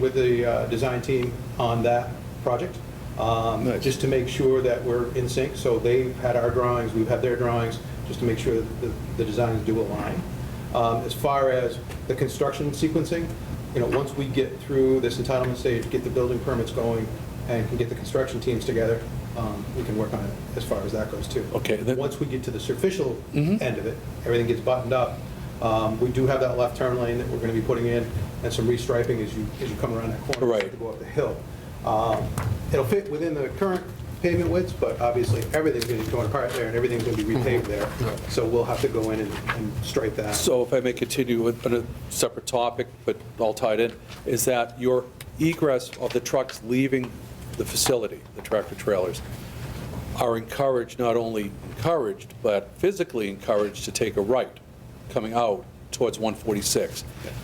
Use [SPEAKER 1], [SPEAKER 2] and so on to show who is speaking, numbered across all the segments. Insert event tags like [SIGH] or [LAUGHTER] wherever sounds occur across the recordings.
[SPEAKER 1] with the uh, design team on that project, um,
[SPEAKER 2] Nice.
[SPEAKER 1] just to make sure that we're in sync. So they've had our drawings, we've had their drawings, just to make sure that the- the designs do align. Um, As far as the construction sequencing, you know, once we get through this entitlement stage, get the building permits going, and can get the construction teams together, um, we can work on it as far as that goes, too.
[SPEAKER 2] Okay, that-
[SPEAKER 1] Once we get to the superficial
[SPEAKER 2] Mm-hmm.
[SPEAKER 1] end of it, everything gets buttoned up, um, we do have that left turn lane that we're going to be putting in, and some restriping as you, as you come around that corner.
[SPEAKER 2] Right.
[SPEAKER 1] To go up the hill. Um, It'll fit within the current pavement widths, but obviously, everything's going to be torn apart there, and everything's going to be repaved there, so we'll have to go in and and stripe that.
[SPEAKER 2] Mm-hmm. So if I may continue with on a separate topic, but all tied in, is that your egress of the trucks leaving the facility, the tractor trailers, are encouraged, not only encouraged, but physically encouraged to take a right coming out towards 146.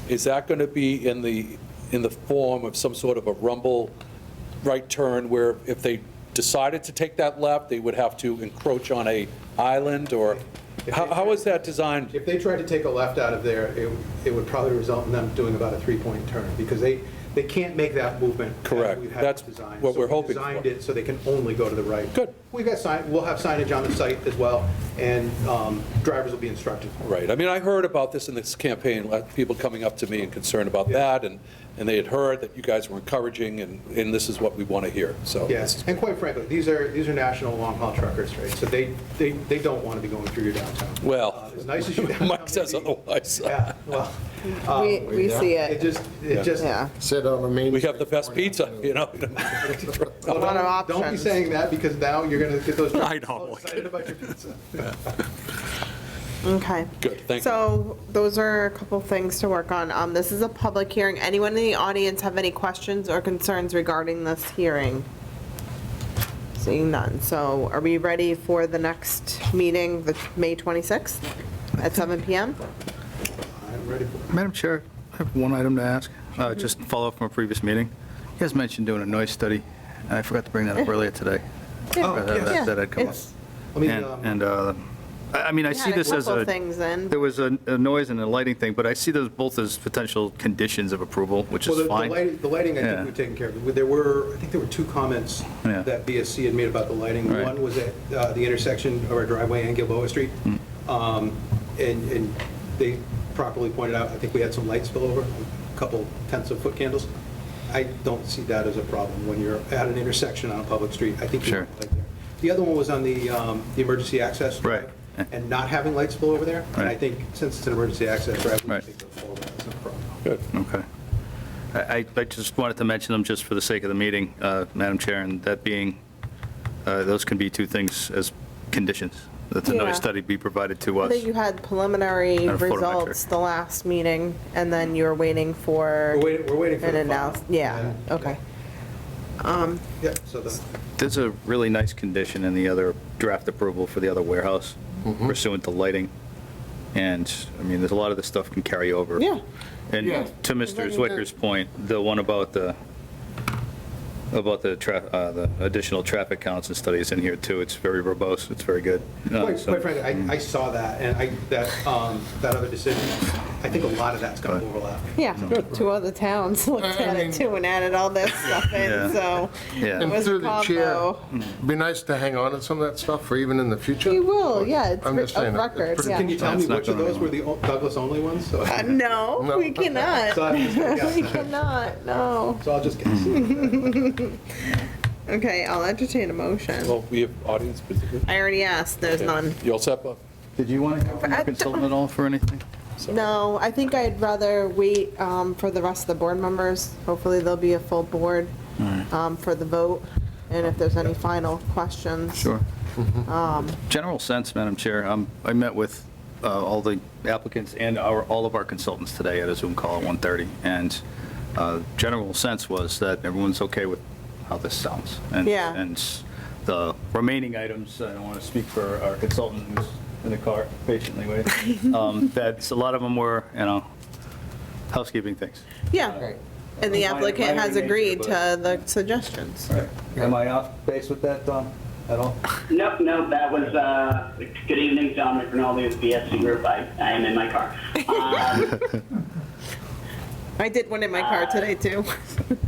[SPEAKER 2] Is that going to be in the, in the form of some sort of a rumble right turn where if they decided to take that left, they would have to encroach on a island or, how how is that designed?
[SPEAKER 1] If they tried to take a left out of there, it, it would probably result in them doing about a three-point turn, because they, they can't make that movement. as
[SPEAKER 2] Correct.
[SPEAKER 1] we have it
[SPEAKER 2] That's
[SPEAKER 1] designed.
[SPEAKER 2] what
[SPEAKER 1] So
[SPEAKER 2] we're
[SPEAKER 1] we
[SPEAKER 2] hoping
[SPEAKER 1] Designed
[SPEAKER 2] for.
[SPEAKER 1] it so they can only go to the right.
[SPEAKER 2] Good.
[SPEAKER 1] We've got sign, we'll have signage on the site as well, and um, drivers will be instructed.
[SPEAKER 2] Right, I mean, I heard about this in this campaign, like, people coming up to me and concerned about that, and, and they had heard that you guys were encouraging, and, and this is what we want to hear, so.
[SPEAKER 1] Yes, and quite frankly, these are, these are national long-haul truckers, right? So they, they, they don't want to be going through your downtown.
[SPEAKER 2] Well,
[SPEAKER 1] Uh, As nice as your downtown may
[SPEAKER 2] [LAUGHS] [LAUGHS] Mike says
[SPEAKER 1] be.
[SPEAKER 2] otherwise.
[SPEAKER 1] Yeah, well,
[SPEAKER 3] We, we see
[SPEAKER 1] it
[SPEAKER 3] it,
[SPEAKER 1] just, it just.
[SPEAKER 3] yeah.
[SPEAKER 4] Sit on the main.
[SPEAKER 2] We have the best
[SPEAKER 4] Street
[SPEAKER 2] pizza, you know? [LAUGHS]
[SPEAKER 1] Well,
[SPEAKER 3] What are
[SPEAKER 1] don't- Don't be
[SPEAKER 3] options?
[SPEAKER 1] saying that, because now you're going to get those
[SPEAKER 2] [LAUGHS] I
[SPEAKER 1] truckers
[SPEAKER 2] know.
[SPEAKER 1] all excited about your pizza.
[SPEAKER 3] Okay.
[SPEAKER 2] Good, thank you.
[SPEAKER 3] So those are a couple things to work on. Um, this is a public hearing. Anyone in the audience have any questions or concerns regarding this hearing? Seeing none. So are we ready for the next meeting, the May 26th at 7 PM?
[SPEAKER 1] I'm ready for it.
[SPEAKER 5] Madam Chair, I have one item to ask, uh, just to follow up from a previous meeting. You guys mentioned doing a noise study, and I forgot to bring that up earlier today.
[SPEAKER 1] Oh,
[SPEAKER 3] Yeah.
[SPEAKER 5] Uh, that-
[SPEAKER 3] Yeah.
[SPEAKER 5] That had come up.
[SPEAKER 3] It's-
[SPEAKER 1] Let me,
[SPEAKER 5] And,
[SPEAKER 1] um,
[SPEAKER 5] and, uh, I I mean, I
[SPEAKER 3] we
[SPEAKER 5] see
[SPEAKER 3] had a
[SPEAKER 5] this as
[SPEAKER 3] couple
[SPEAKER 5] a,
[SPEAKER 3] Things in.
[SPEAKER 5] there was a a noise and a lighting thing, but I see those both as potential conditions of approval, which
[SPEAKER 1] Well, the-
[SPEAKER 5] is
[SPEAKER 1] the
[SPEAKER 5] fine.
[SPEAKER 1] lighting, the lighting, I
[SPEAKER 5] Yeah.
[SPEAKER 1] think we've taken care of. There were, I think there were two comments
[SPEAKER 5] Yeah.
[SPEAKER 1] that BSC had made about the lighting.
[SPEAKER 5] Right.
[SPEAKER 1] One was at uh, the intersection of our driveway and Gilboa Street.
[SPEAKER 5] Hmm.
[SPEAKER 1] Um, And, and they properly pointed out, I think we had some light spillover, a couple tenths of foot candles. I don't see that as a problem when you're at an intersection on a public street. I think you
[SPEAKER 5] Sure.
[SPEAKER 1] want light there. The other one was on the, um, the emergency access. drive
[SPEAKER 5] Right.
[SPEAKER 1] And not having light spill over there. And I
[SPEAKER 5] Right.
[SPEAKER 1] think since it's an emergency access drive, we can
[SPEAKER 5] Right.
[SPEAKER 1] take those forward. That's not a problem.
[SPEAKER 2] Good.
[SPEAKER 5] Okay. I, I- I just wanted to mention them just for the sake of the meeting, uh, Madam Chair, and that being, uh, those can be two things as conditions, that the
[SPEAKER 3] Yeah.
[SPEAKER 5] noise study be provided to
[SPEAKER 3] I
[SPEAKER 5] us.
[SPEAKER 3] think you had preliminary
[SPEAKER 5] And a photometric.
[SPEAKER 3] results the last meeting, and then you were waiting for.
[SPEAKER 1] We're waiting, we're waiting for
[SPEAKER 3] An
[SPEAKER 1] the final.
[SPEAKER 3] announce, yeah, okay.
[SPEAKER 1] Yeah, so the,
[SPEAKER 5] There's a really nice condition in the other draft approval for the other warehouse pursuant to lighting. And, I mean, there's a lot of this stuff can carry over.
[SPEAKER 3] Yeah.
[SPEAKER 5] And
[SPEAKER 4] Yeah.
[SPEAKER 5] to Mr. Zwicker's point, the one about the, about the tra- uh, the additional traffic counts and studies in here too, it's very verbose, it's very good. Uh,
[SPEAKER 1] quite
[SPEAKER 5] so-
[SPEAKER 1] quite frankly, I, I saw that, and I, that, um, that other decision, I think a lot of that's gonna overlap.
[SPEAKER 3] Yeah, two other towns looked
[SPEAKER 4] I- I
[SPEAKER 3] at
[SPEAKER 4] mean-
[SPEAKER 3] it too and added all that stuff in,
[SPEAKER 5] Yeah.
[SPEAKER 3] so it
[SPEAKER 5] Yeah.
[SPEAKER 4] And
[SPEAKER 3] was a
[SPEAKER 4] through the chair,
[SPEAKER 3] combo.
[SPEAKER 4] be nice to hang on to some of that stuff for even in the future.
[SPEAKER 3] We will, yeah, it's
[SPEAKER 4] I'm just
[SPEAKER 3] re- of
[SPEAKER 4] saying that. It's
[SPEAKER 3] record,
[SPEAKER 4] pretty-
[SPEAKER 3] yeah.
[SPEAKER 1] Can you tell me
[SPEAKER 5] It's not
[SPEAKER 1] which of
[SPEAKER 5] going
[SPEAKER 1] those were the o- Douglas-only ones? So
[SPEAKER 3] Uh,
[SPEAKER 1] so
[SPEAKER 3] No,
[SPEAKER 4] No.
[SPEAKER 3] we cannot, [LAUGHS]
[SPEAKER 1] I'm just gonna
[SPEAKER 3] we
[SPEAKER 1] guess.
[SPEAKER 3] cannot, no.
[SPEAKER 1] So I'll just guess.
[SPEAKER 5] [LAUGHS]
[SPEAKER 3] Okay, I'll entertain a motion.
[SPEAKER 2] Well, we have audience participation.
[SPEAKER 3] I already asked, there's none.
[SPEAKER 2] You all set, Bob?
[SPEAKER 5] Did you want to go from
[SPEAKER 3] I
[SPEAKER 5] the
[SPEAKER 3] don't-
[SPEAKER 5] consultant at all for anything?
[SPEAKER 2] Sorry.
[SPEAKER 3] No, I think I'd rather wait um, for the rest of the board members. Hopefully, there'll be a full board um, for the vote, and if there's any final questions.
[SPEAKER 5] Sure. General sense, Madam Chair, um, I met with uh, all the applicants and our, all of our consultants today at a Zoom call at 1:30, and uh, general sense was that everyone's okay with how this sounds. And-
[SPEAKER 3] Yeah.
[SPEAKER 5] And the remaining items, I don't want to speak for our consultant who's in the car patiently waiting, um, that's, a lot of them were, you know, housekeeping things.
[SPEAKER 3] Yeah, and the
[SPEAKER 5] Minor-
[SPEAKER 3] applicant
[SPEAKER 5] minor
[SPEAKER 3] has
[SPEAKER 5] nature,
[SPEAKER 3] agreed to
[SPEAKER 5] but-
[SPEAKER 3] the suggestions.
[SPEAKER 5] Am I off base with that, Don, at all?
[SPEAKER 6] Nope, nope, that was, uh, good evening, Dominic Rinaldi with BSC Group, I, I am in my car. Um,
[SPEAKER 3] I I did one in my car today, too.